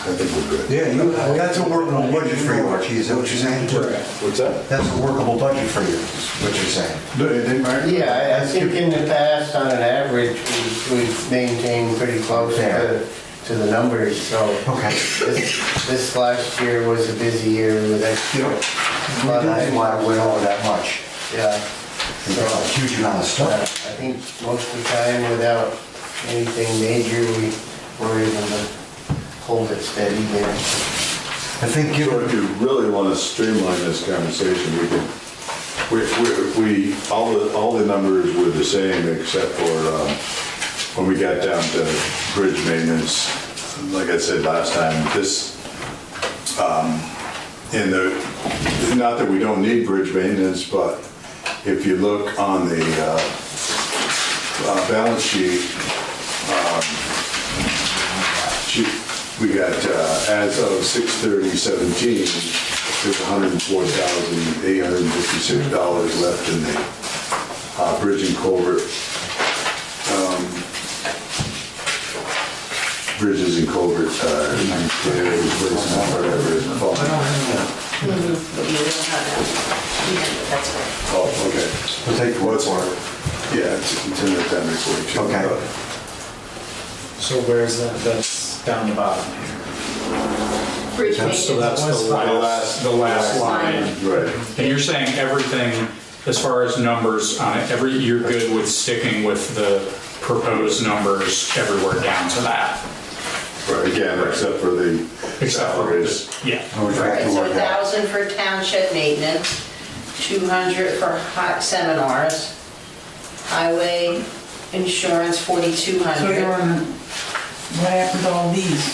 I think we're good. Yeah, you, that's a workable budget for you, Archie, is that what you're saying? What's that? That's a workable budget for you, is what you're saying. Yeah, I- I think in the past, on an average, we- we've maintained pretty close to, to the numbers, so. Okay. This this last year was a busy year with You extra, know, we didn't want to went over that much, yeah. we So got a huge amount of uh, stuff. I think most of the time, without anything major, we were able to hold it steady there. I think you, So if you really want to streamline this conversation, we can, we, we, we, all the, all the numbers were the same except for, um, when we got down to bridge maintenance, like I said last time, this, um, in the, not that we don't need bridge maintenance, but if you look on the, uh, uh, balance sheet, She- We got, uh, as of 6/30/17, there's $104,856 left in the uh, bridge and culvert. um, Bridges and culvert, uh, repair, replacement, whatever is involved. But you don't have that. You don't, That's right. Oh, okay. We'll take the word's worth. Yeah, it's it's in the Oh, appendix. we should- Okay. So where's that, that's down the bottom. Bridge So maintenance. that's the last, the last line. Right. And you're saying everything, as far as numbers, on it, every, you're good with sticking with the proposed numbers everywhere down to that? Right, again, except for the Except for salaries. this, yeah. I would like Right, to so work out. 1,000 for township maintenance, 200 for hot seminars, highway insurance, So they're 4,200. on, what happened to all these?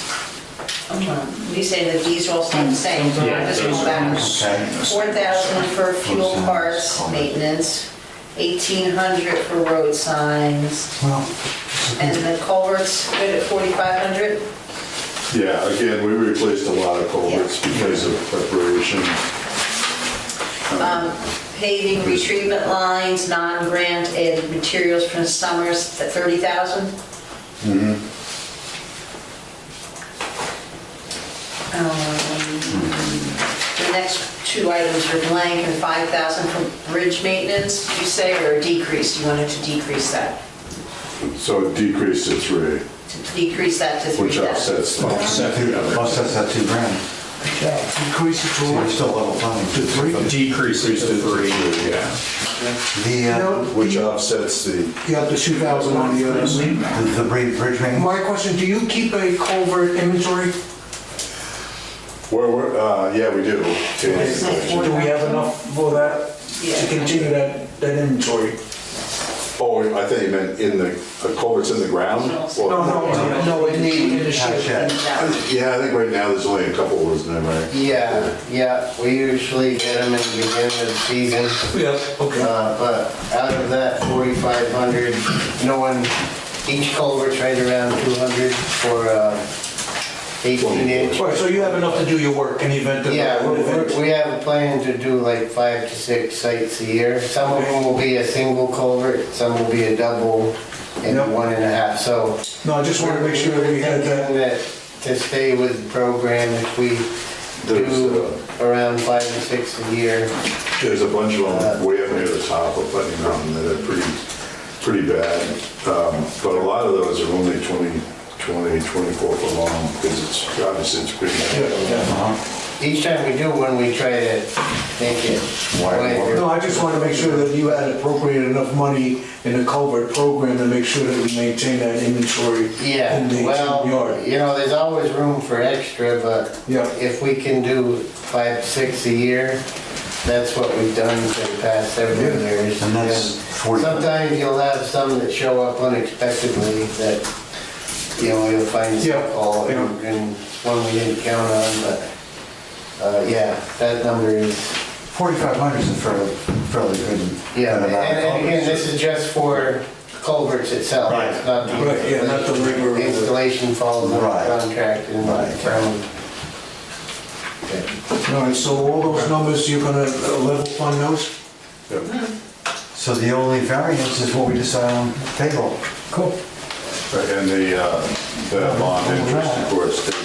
Um, You say that these all stay the same, so I just go back. Okay. 4,000 for fuel parts maintenance, 1,800 for road signs, Well, and the culverts good at 4,500? Yeah, again, we replaced a lot of culverts because of preparation. Paving retreatment lines, non-grant added materials from Summers at 30,000? Mm-hmm. Um, The next two items are blank and 5,000 for bridge maintenance, did you say, or decreased? You wanted to decrease that, So it decreased to three, to decrease that to which 3,000? offsets the Offset the other. Plus that's that two grand. Increase it So we're to still level funded. to three? Decreases to three, Decreases. yeah. The, uh, No. Which offsets the, You have the 2,000 on the others. the the bridge bridge maintenance? My question, do you keep a culvert inventory? where, we're- uh, yeah, we do. Do we have enough for that, to Yeah. continue that, that inventory? Oh, I thought you meant in the, the culverts in the ground? No, no, no, no, in the, in the Oh, Not shed. yet. Yeah, I think right now there's only a couple, isn't there, Mike? Yeah, yeah, we usually get them in the beginning of the season. Yeah, okay. Uh, But out of that 4,500, no one, each culvert's right around 200 for uh, 18 inch. Right, so you have enough to do your work in the event of. Yeah, we- an event. we- we have a plan to do like five to six sites a year. Some of them will be a single culvert, some will be a double and Yep. one and a half, so. No, I just wanted to make sure that we had that. Thinking that To stay with the program, if we There's, do uh, around five to six a year, There's a bunch of them way up near the top of Putney Mountain that are pretty, pretty bad. Um, But a lot of those are only 20, 20, 24 foot long because it's, obviously it's pretty. each time we do one, we try to make it wider. No, I just want to make sure that you had appropriate enough money in the culvert program to make sure that we maintain that inventory in the Yeah, well, yard. you know, there's always room for extra, but Yeah. if we can do five, six a year, that's what we've done for the past several years. And that's And 40. Sometimes you'll have some that show up unexpectedly that, you know, you'll find Yeah, some call yeah. and and one we didn't count on, but, uh, yeah, that number is 4,500 is a fairly, fairly good. Yeah, good amount and of and again, dollars. this is just for culverts itself, Right. it's not Right, yeah, not the rigor of the the- installation falls under Right. contract and Right. from. All right, so all those numbers, you're gonna uh, level fund those? So the only variance is what we decide on table. Cool. And the, uh, the bond interest, of course,